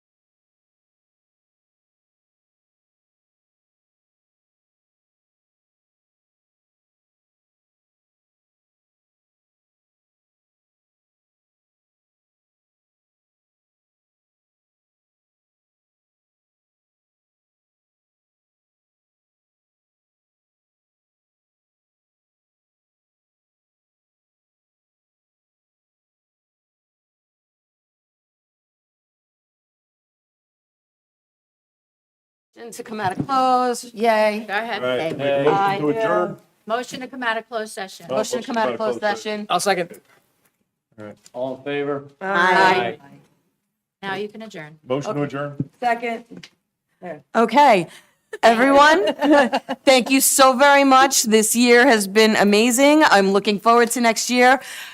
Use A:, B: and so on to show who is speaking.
A: Motion to come out of close, yay.
B: Go ahead.
C: Right,
A: Okay.
C: make a motion to
A: I do.
C: adjourn.
B: Motion to come out of closed session.
C: Oh.
A: Motion to come out of closed session.
D: I'll second.
E: All in favor?
A: Aye.
B: Now you can adjourn.
C: Motion to adjourn.
F: Second.
A: Okay, everyone, thank you so very much. This year has been amazing. I'm looking forward to next year.